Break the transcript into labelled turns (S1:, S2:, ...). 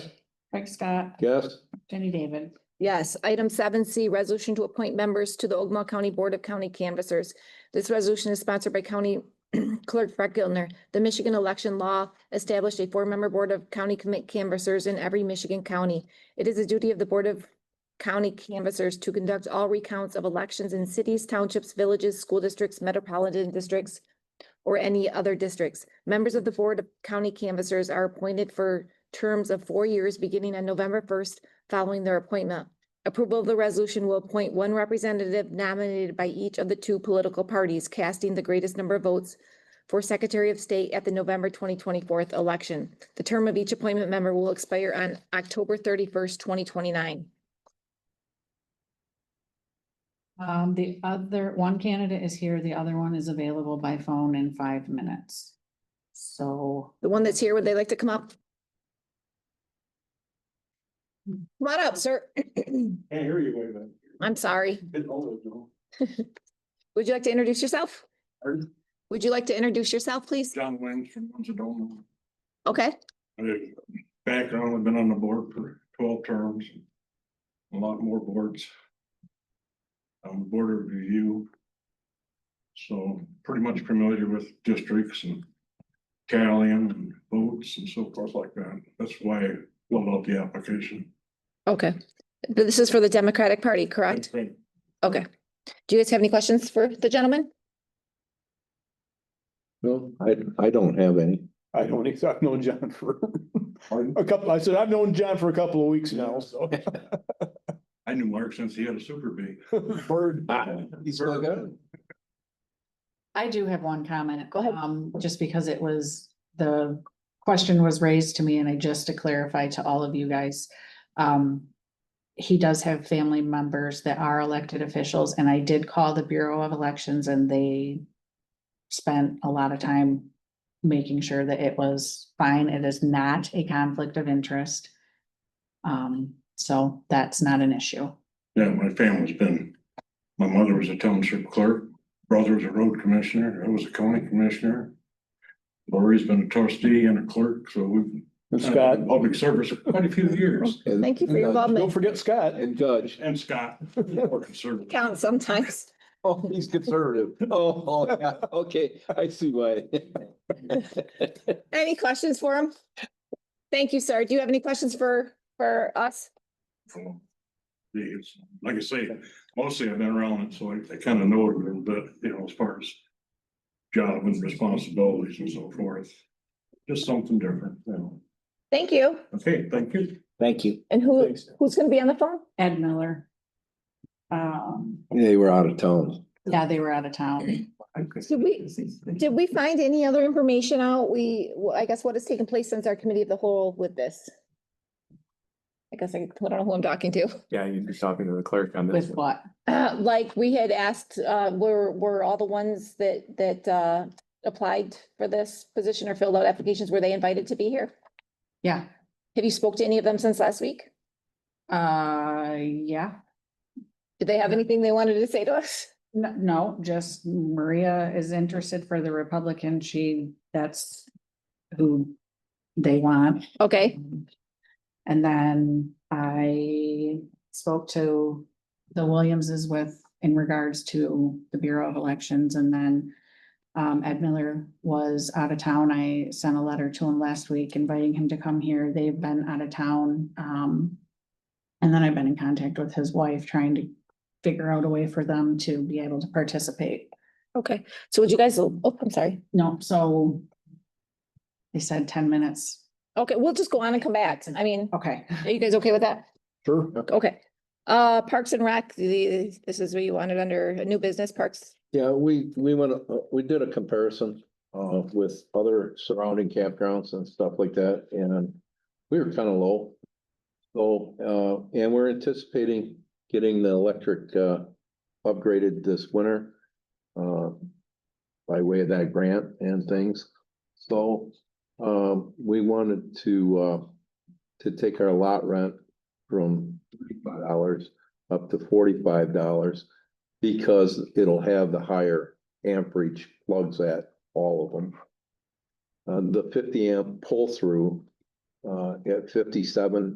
S1: Craig Scott,
S2: Yes.
S1: Jenny David.
S3: Yes, item seven C, resolution to appoint members to the Ogma County Board of County Canvassers. This resolution is sponsored by County Clerk Brett Gilner. The Michigan election law established a four-member board of county commit canvassers in every Michigan county. It is the duty of the Board of County Canvassers to conduct all recounts of elections in cities, townships, villages, school districts, metropolitan districts, or any other districts. Members of the Board of County Canvassers are appointed for terms of four years beginning on November first following their appointment. Approval of the resolution will appoint one representative nominated by each of the two political parties casting the greatest number of votes for Secretary of State at the November twenty twenty-four election. The term of each appointment member will expire on October thirty-first, twenty twenty-nine.
S1: Um, the other, one candidate is here, the other one is available by phone in five minutes. So,
S3: The one that's here, would they like to come up? Come on up, sir.
S2: Can't hear you, wait a minute. Oh,
S3: I'm sorry.
S2: Bit older, no?
S3: Would you like to introduce yourself?
S2: Pardon?
S3: Would you like to introduce yourself, please?
S2: John Wayne, I'm a donor.
S3: Okay,
S2: I- Background, I've been on the board for twelve terms. A lot more boards. Um, board of review. So pretty much familiar with districts and tallying and votes and so forth like that. That's why I filled out the application.
S3: okay. This is for the Democratic Party, correct? Okay. Do you guys have any questions for the gentleman?
S4: No, I, I don't have any.
S5: I don't, ex- I've known John for
S2: Pardon?
S5: a couple, I said, I've known John for a couple of weeks now, so.
S2: I knew Mark since he had a super bee.
S5: Bird.
S4: He's still good.
S1: I do have one comment.
S3: Go ahead.
S1: Um, just because it was, the question was raised to me and I just to clarify to all of you guys. Um, he does have family members that are elected officials and I did call the Bureau of Elections and they spent a lot of time making sure that it was fine. It is not a conflict of interest. Um, so that's not an issue.
S2: Yeah, my family's been, my mother was a township clerk, brother was a road commissioner, I was a county commissioner. Lori's been a trustee and a clerk, so we've.
S5: And
S2: kind of
S5: Scott,
S2: been in Public service for quite a few years,
S3: Thank you for your
S4: And, uh,
S5: don't
S3: involvement.
S5: forget Scott.
S4: And Judge,
S2: and Scott. we're conservative.
S3: Count sometimes.
S4: oh, he's conservative. Oh, oh, yeah, okay, I see why.
S3: Any questions for him? Thank you, sir. Do you have any questions for, for us?
S2: It's, like I say, mostly I've been around it, so I, I kind of know it a little bit, you know, as far as job and responsibilities and so forth. Just something different, you know.
S3: Thank you.
S2: Okay, thank you.
S4: Thank you.
S3: And who,
S5: Thanks.
S3: who's gonna be on the phone?
S1: Ed Miller. Um,
S4: They were out of town.
S1: yeah, they were out of town.
S3: Did we, did we find any other information out? We, well, I guess what has taken place since our committee of the whole with this? I guess I I don't know who I'm talking to.
S6: Yeah, you're just talking to the clerk on this.
S1: With
S6: one.
S1: what?
S3: Uh, like we had asked, uh, were, were all the ones that, that, uh, applied for this position or filled out applications, were they invited to be here?
S1: Yeah,
S3: Have you spoke to any of them since last week?
S1: uh, yeah,
S3: Did they have anything they wanted to say to us?
S1: no, no, just Maria is interested for the Republican. She, that's who they want.
S3: Okay,
S1: And then I spoke to the Williamses with, in regards to the Bureau of Elections and then um, Ed Miller was out of town. I sent a letter to him last week inviting him to come here. They've been out of town. Um, and then I've been in contact with his wife, trying to figure out a way for them to be able to participate.
S3: okay. So would you guys, oh, I'm sorry.
S1: No, so they said ten minutes.
S3: Okay, we'll just go on and come back. I mean,
S1: Okay.
S3: are you guys okay with that?
S5: Sure.
S3: Okay. Uh, Parks and Rec, the, this is what you wanted under new business parks.
S4: Yeah, we, we went, uh, we did a comparison uh with other surrounding campgrounds and stuff like that, and we were kind of low. So, uh, and we're anticipating getting the electric uh upgraded this winter. Uh, by way of that grant and things. So, um, we wanted to uh, to take our lot rent from thirty-five dollars up to forty-five dollars. Because it'll have the higher amperage plugs at all of them. Uh, the fifty amp pull through, uh, at fifty-seven